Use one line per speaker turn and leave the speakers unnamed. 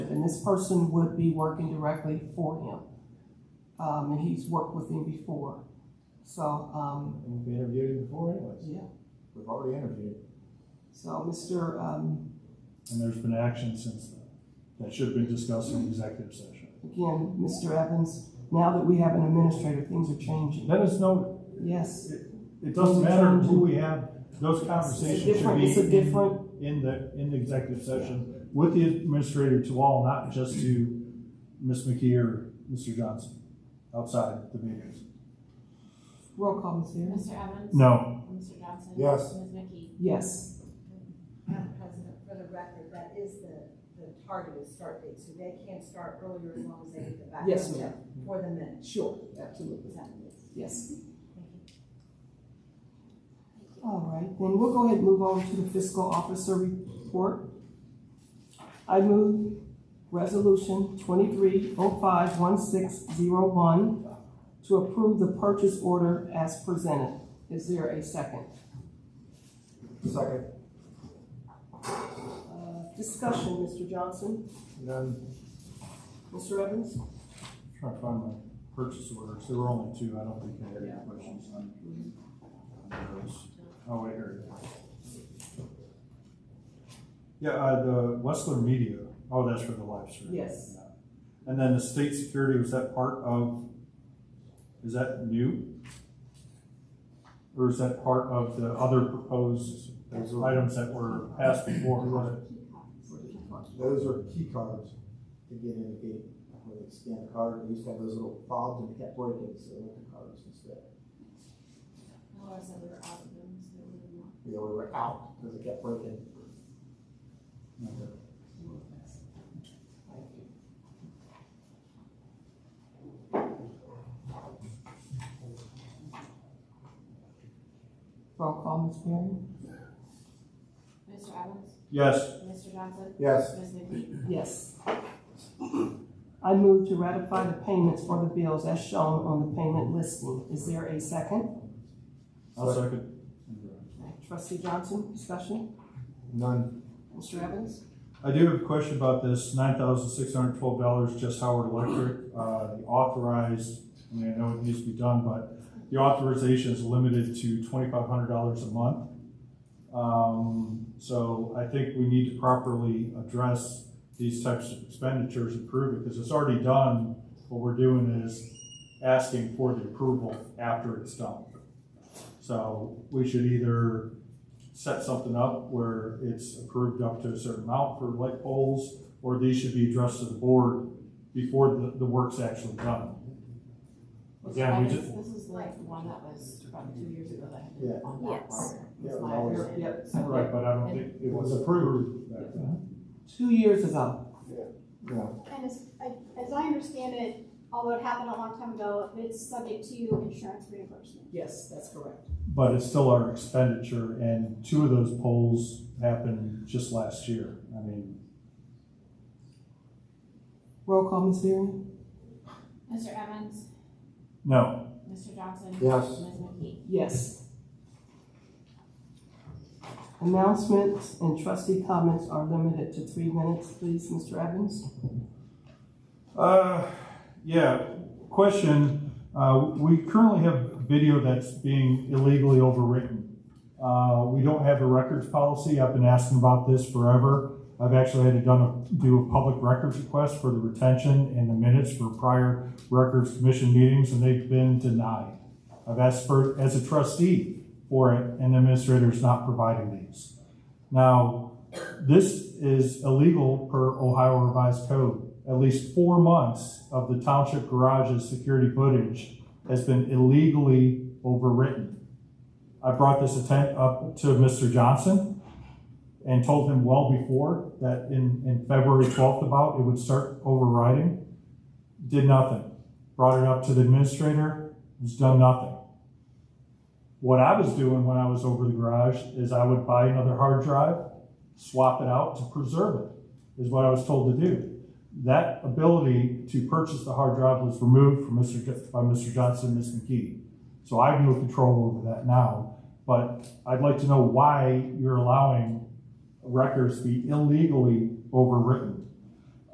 and this person would be working directly for him. Um, and he's worked with him before, so, um,
And we interviewed him before anyways.
yeah.
We've already interviewed. him.
So, Mr., um,
And there's been action since then that should have been discussed in executive session.
again, Mr. Evans, now that we have an administrator, things are changing.
Let us know,
Yes,
it doesn't matter who we have, those
it's
conversations
a
should
different, it's a
be in-
different,
in the, in the executive session with the administrator to all, not just to Ms. McKee or Mr. Johnson outside the meetings.
roll call, Ms. Harris.
Mr. Evans?
No,
Mr. Johnson?
Yes.
Ms. McKee?
Yes,
Madam President, for the record, that is the, the targeted start date, so they can start earlier as long as they get the background
Yes, ma'am.
check for the minutes.
sure, absolutely,
Is that it?
yes. All right, then we'll go ahead and move on to the fiscal officer report. I move resolution twenty-three oh five one six zero one to approve the purchase order as presented. Is there a second?
Second,
Uh, Discussion, Mr. Johnson,
none,
Mr. Evans?
trying to find my purchase orders. There were only two. I don't think I had any questions on on those. Oh, wait, here. it is. Yeah, uh, the Westler Media, oh, that's for the live stream.
Yes.
And then the state security, was that part of, is that new? Or is that part of the other proposed items that were passed before?
those are key cards to get in the gate. Where they scan a card, they used to have those little fobs and they kept breaking, so they went to cards instead.
Laura said we were out of them, so we didn't want.
You know, we were out because they kept breaking.
Roll call, Ms. Perry?
Mr. Evans?
Yes,
Mr. Johnson?
Yes,
Ms. McKee?
Yes. I move to ratify the payments for the bills as shown on the payment listing. Is there a second?
I'll second.
Trustee Johnson, discussion?
none,
Mr. Evans?
I do have a question about this nine thousand six hundred twelve dollars, just Howard Electric, uh, the authorized, I mean, I know it needs to be done, but the authorization is limited to twenty-five hundred dollars a month. Um, so I think we need to properly address these types of expenditures and prove it, because it's already done. What we're doing is asking for the approval after it's done. So we should either set something up where it's approved up to a certain amount for light poles, or these should be addressed to the board before the, the work's actually done. Again, we
Mr.
just,
Evans, This is like the one that was about two years ago that had
Yeah.
been on that
Yes.
part.
Yeah, it was
my
always-
understanding.
Yep.
right, but I don't think it was approved back then.
Two years ago.
no,
And as, I- as I understand it, although it happened a long time ago, it's subject to insurance reimbursement.
Yes, that's correct.
But it's still our expenditure, and two of those poles happened just last year. I mean,
Roll call, Ms. Berry?
Mr. Evans?
no,
Mr. Johnson?
Yes.
Ms. McKee?
Yes. Announcements and trustee comments are limited to three minutes, please, Mr. Evans.
Uh, yeah, question, uh, we currently have video that's being illegally overwritten. Uh, we don't have a records policy, I've been asking about this forever. I've actually had to done a, do a public records request for the retention and the minutes for prior records commission meetings, and they've been denied. I've asked for, as a trustee for it, and the administrator's not providing these. Now, this is illegal per Ohio Revised Code at least four months of the township garage's security footage has been illegally overwritten. I brought this atten- up to Mr. Johnson and told him well before that in, in February 12th about it would start overriding. Did nothing. Brought it up to the administrator, who's done nothing. What I was doing when I was over the garage is I would buy another hard drive, swap it out to preserve it, is what I was told to do that ability to purchase the hard drive was removed from Mr. Jo- by Mr. Johnson and Ms. McKee. So I have no control over that now, but I'd like to know why you're allowing records to be illegally overwritten.